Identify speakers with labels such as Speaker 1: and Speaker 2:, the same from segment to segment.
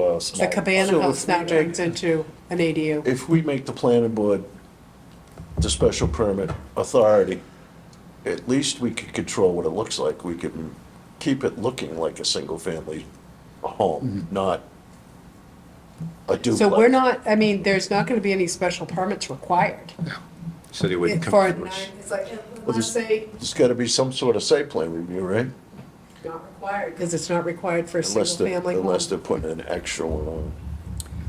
Speaker 1: small.
Speaker 2: The cabana
Speaker 1: So
Speaker 2: house
Speaker 1: if
Speaker 2: now
Speaker 1: we
Speaker 2: turns
Speaker 1: make-
Speaker 2: into an ADU.
Speaker 1: If we make the planning board the special permit authority, at least we could control what it looks like. We can keep it looking like a single-family home, not a duplex.
Speaker 2: So we're not, I mean, there's not gonna be any special permits required.
Speaker 3: So they wouldn't come
Speaker 2: For a
Speaker 3: to
Speaker 2: nine,
Speaker 3: us.
Speaker 2: it's like,
Speaker 1: there's-
Speaker 2: let's say,
Speaker 1: There's gotta be some sort of site plan review, right?
Speaker 2: not required, because it's not required for a
Speaker 1: Unless they're,
Speaker 2: single-family home.
Speaker 1: unless they're putting an uh, extra one on.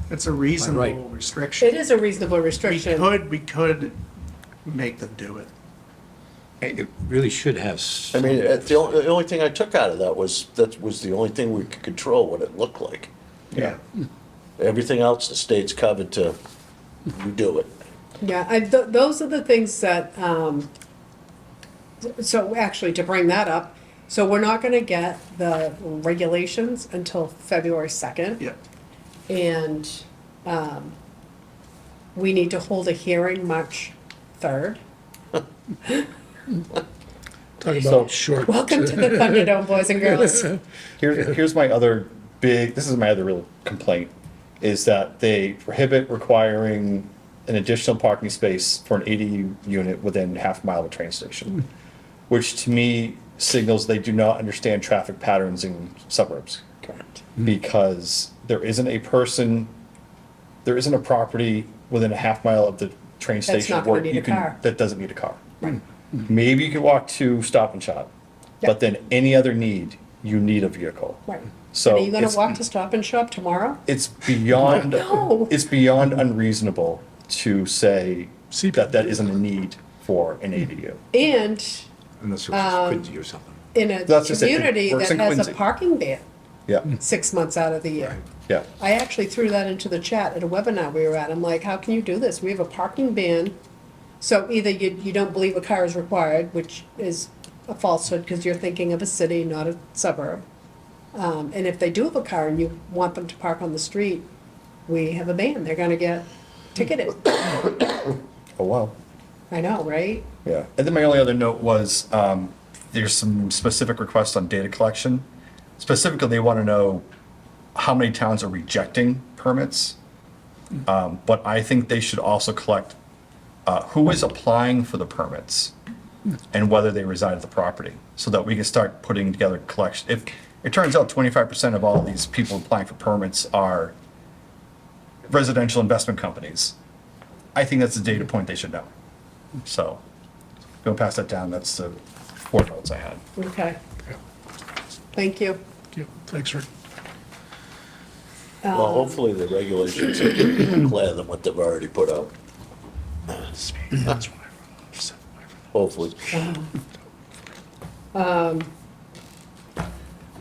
Speaker 4: It's a
Speaker 3: Right.
Speaker 4: reasonable
Speaker 2: It
Speaker 4: restriction.
Speaker 2: is a reasonable
Speaker 4: We
Speaker 2: restriction.
Speaker 4: could, we could make them do it.
Speaker 3: It it really should have.
Speaker 1: I mean,
Speaker 3: some-
Speaker 1: uh, the only, the only thing I took out of that was, that was the only thing we could control, what it looked like.
Speaker 4: Yeah.
Speaker 1: Everything else, the state's covered to, you do it.
Speaker 2: Yeah, I, th- those are the things that, um, so actually, to bring that up, so we're not gonna get the regulations until February second.
Speaker 4: Yeah.
Speaker 2: And um, we need to hold a hearing March 3rd.
Speaker 5: Talk about short.
Speaker 2: Welcome to the Thunderdome, boys and girls.
Speaker 6: Here's here's my other big. This is my other real complaint, is that they prohibit requiring an additional parking space for an ADU unit within half a mile of a train station, which to me signals they do not understand traffic patterns in suburbs. Correct. Because there isn't a person, there isn't a property within a half mile of the train station
Speaker 2: not gonna
Speaker 6: where
Speaker 2: need
Speaker 6: you
Speaker 2: a
Speaker 6: can
Speaker 2: car.
Speaker 6: that doesn't need a car. Maybe you could walk to Stop and Shop,
Speaker 2: Yep.
Speaker 6: but then any other need, you need a vehicle.
Speaker 2: Right.
Speaker 6: So
Speaker 2: Are you going
Speaker 6: it's-
Speaker 2: to walk to Stop and Shop tomorrow?
Speaker 6: It's beyond,
Speaker 2: No.
Speaker 6: it's beyond unreasonable to say
Speaker 5: See-
Speaker 6: that that isn't a need for an ADU.
Speaker 2: And
Speaker 3: Unless it was Quincy or something.
Speaker 2: in a
Speaker 6: That's just it. It
Speaker 2: community
Speaker 6: works
Speaker 2: that
Speaker 6: in
Speaker 2: has a
Speaker 6: Quincy.
Speaker 2: parking ban
Speaker 6: Yeah,
Speaker 2: six months out of the year.
Speaker 6: yeah.
Speaker 2: I actually threw that into the chat at a webinar we were at. I'm like, how can you do this? We have a parking ban. So either you, you don't believe a car is required, which is a falsehood because you're thinking of a city, not a suburb. Um, and if they do have a car and you want them to park on the street, we have a ban. They're gonna get ticketed.
Speaker 6: Oh, wow.
Speaker 2: I know, right?
Speaker 6: Yeah. And then my only other note was, um, there's some specific requests on data collection. Specifically, they want to know how many towns are rejecting permits. Um, but I think they should also collect, uh, who is applying for the permits and whether they reside at the property, so that we can start putting together collection. If, it turns out twenty-five percent of all these people applying for permits are residential investment companies. I think that's a data point they should know. So, go pass that down, that's the four votes I had.
Speaker 2: Okay. Thank you.
Speaker 5: Yeah, Thanks, Rick.
Speaker 1: Well, hopefully the regulations are clearer than what they've already put out, hopefully.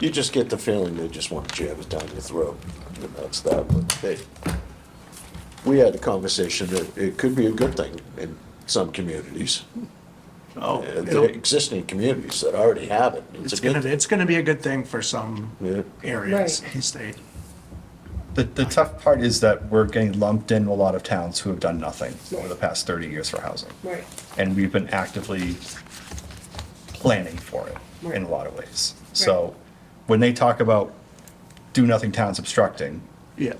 Speaker 1: You just get the feeling they just want to jab it down your throat, and that's that, but hey. We had a conversation that it could be a good thing in some communities,
Speaker 4: Oh,
Speaker 1: uh, the
Speaker 4: it'll-
Speaker 1: existing communities that already have it. It's
Speaker 4: it's
Speaker 1: a good
Speaker 4: gonna, it's gonna be a good thing for some
Speaker 1: Yeah.
Speaker 4: areas
Speaker 2: Right.
Speaker 4: in the state.
Speaker 6: The, the tough part is that we're getting lumped in with a lot of towns who have done nothing over the past thirty years for housing.
Speaker 2: Right.
Speaker 6: And we've been actively planning for it in a lot of ways. So, when they talk about do-nothing towns obstructing,
Speaker 4: Yeah.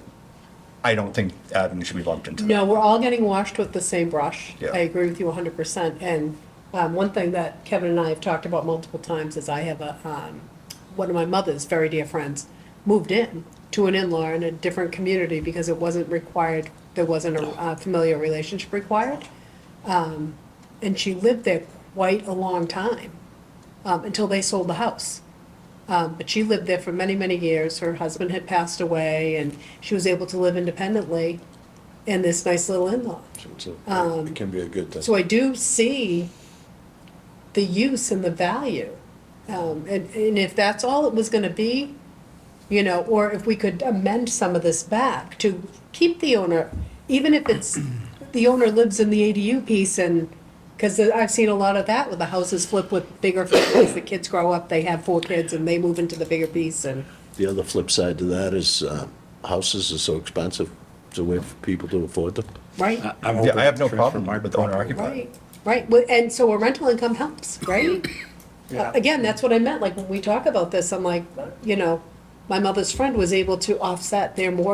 Speaker 6: I don't think Abington should be lumped into that.
Speaker 2: No, we're all getting washed with the same brush.
Speaker 6: Yeah.
Speaker 2: I agree with you hundred percent. And um, one thing that Kevin and I have talked about multiple times is I have a, um, one of my mother's very dear friends moved in to an in-law in a different community because it wasn't required, there wasn't a uh, familiar relationship required. Um, And she lived there quite a long time, um, until they sold the house. Um, but she lived there for many, many years. Her husband had passed away and she was able to live independently in this nice little in-law.
Speaker 1: It's a- It can be a good thing.
Speaker 2: So I do see the use and the value. Um, and, and if that's all it was gonna be, you know, or if we could amend some of this back to keep the owner, even if it's, the owner lives in the ADU piece and, because I've seen a lot of that with the houses flip with bigger families, the kids grow up, they have four kids and they move into the bigger piece and,
Speaker 1: The other flip side to that is uh, houses are so expensive, it's a way for people to afford them.
Speaker 2: right?
Speaker 3: I'm
Speaker 6: Yeah,
Speaker 3: hoping
Speaker 6: I have no
Speaker 3: for- for
Speaker 6: problem
Speaker 3: my
Speaker 6: with owner
Speaker 3: property.
Speaker 6: occupied.
Speaker 2: Right, right, Well, and so a rental income helps, right? Uh,
Speaker 4: Yeah.
Speaker 2: Again, that's what I meant, like, when we talk about this, I'm like, you know, my mother's friend was able to offset their mortgage